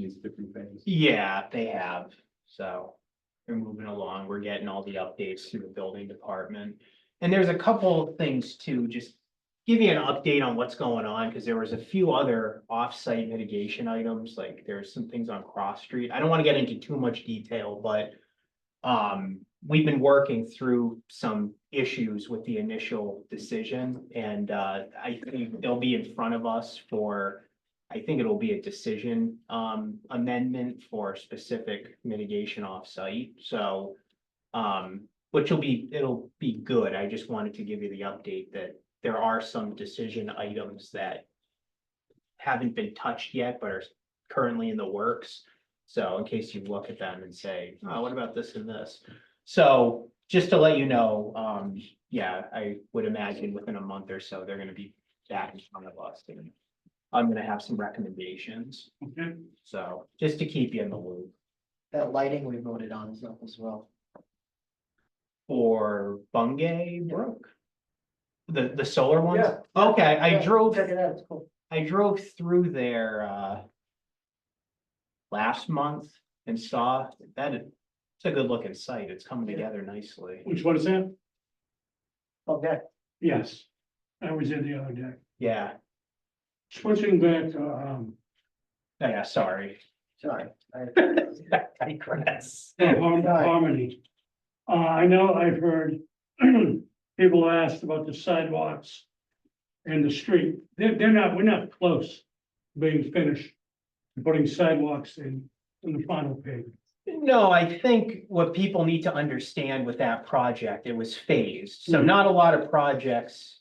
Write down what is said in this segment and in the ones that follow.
these different things. Yeah, they have, so we're moving along, we're getting all the updates through the building department. And there's a couple of things too, just give you an update on what's going on, because there was a few other off-site mitigation items, like there's some things on Cross Street. I don't want to get into too much detail, but um, we've been working through some issues with the initial decision, and uh, I think they'll be in front of us for I think it'll be a decision um amendment for specific mitigation off-site, so. Um, which will be, it'll be good, I just wanted to give you the update that there are some decision items that. Haven't been touched yet, but are currently in the works, so in case you look at them and say, oh, what about this and this? So, just to let you know, um, yeah, I would imagine within a month or so, they're gonna be back in front of us and I'm gonna have some recommendations, Okay. so just to keep you in the loop That lighting we voted on is up as well. for Bungay Brook. The, the solar ones? Yeah. Okay, I Yeah, drove, Check it out, it's cool. I drove through there, uh. Last month and saw that it- it's a good looking site. It's coming Yeah. together nicely. Which one is that? Okay, Yes, I was in the other day. Yeah, Switching back to, um, yeah, sorry. sorry. I- I digress. Har- Right. Harmony. Uh, I know I've heard people asked about the sidewalks and the street. They're, they're not, we're not close to being finished, to putting sidewalks in, in the final pavement. No, I think what people need to understand with that project, it was phased, so Mhm. not a lot of projects.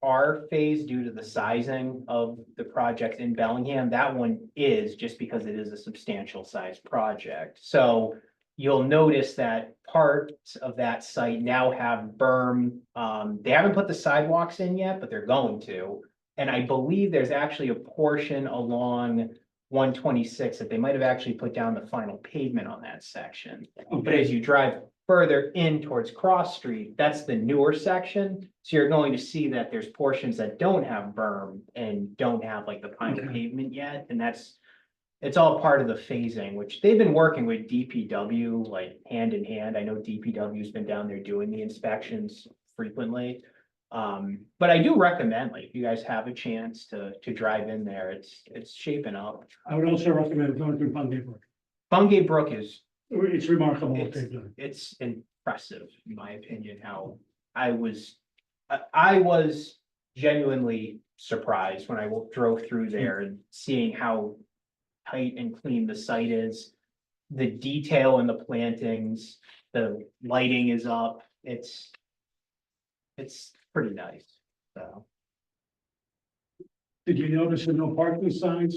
Are phased due to the sizing of the project in Bellingham, that one is just because it is a substantial sized project, so. You'll notice that parts of that site now have berm, um, they haven't put the sidewalks in yet, but they're going to. And I believe there's actually a portion along one twenty-six that they might have actually put down the final pavement on that section. But as you drive further in towards Cross Street, that's the newer section. So you're going to see that there's portions that don't have berm and don't have like the final Okay. pavement yet, and that's. It's all part of the phasing, which they've been working with DPW like hand in hand. I know DPW's been down there doing the inspections frequently. Um, but I do recommend, like, if you guys have a chance to, to drive in there, it's, it's shaping up. I would also recommend going to Bungay Brook. Bungay Brook is, It's remarkable what they've done. it's impressive, in my opinion, how I was, I, I was genuinely surprised when I wa- drove through there and seeing how tight and clean the site is. The detail in the plantings, the lighting is up, it's, it's pretty nice, so. Did you notice there are no parking signs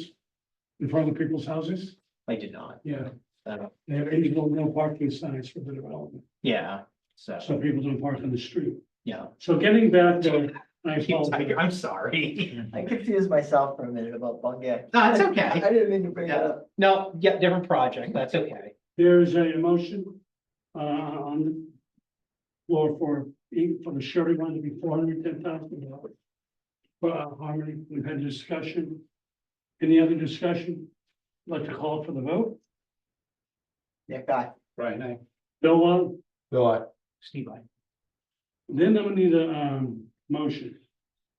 in front of people's houses? I did not, Yeah, so, they have eight, no, no parking signs for the development, yeah, so, so people don't park on the street. yeah. So getting back to, I apologize. I'm sorry. I confused myself for a minute about Bungay. No, it's I okay. didn't mean to bring that up. No, yeah, different project, that's okay. There is a motion, uh, on the floor for, for the surety bond to be four hundred ten thousand dollars. For uh, Harmony, we've had a discussion. Any other discussion? Like to call for the vote? Yeah, guy. Right. Bill Wong? Steve, I. Then I'm gonna need a um motion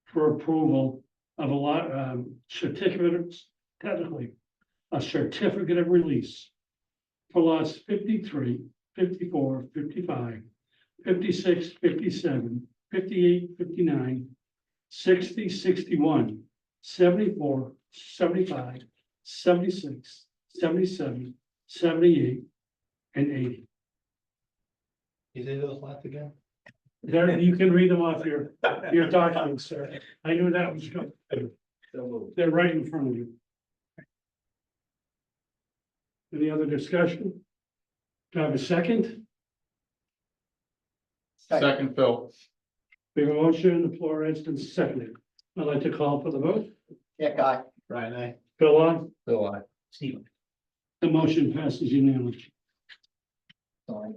for approval of a lot um certificates, technically. A certificate of release for lots 53, 54, 55, 56, 57, 58, 59, 60, 61, 74, 75, 76, 77, 78, and eighty. You did those last again? There, you can read them off your your documents, sir. I knew that was coming. They're right in front of you. Any other discussion? Do I have a second? Second, Phil. We have a motion, the floor has been seconded. I'd like to call for the vote. Yeah, guy. Ryan, I. Bill, on. Phil, I. Steve. The motion passes unanimously.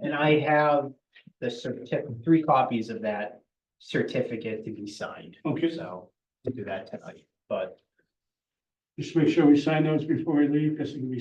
And I have the certi- three copies of that certificate to be signed, Okay, so we'll do that tonight, but just make sure we sign those before we leave, because it can be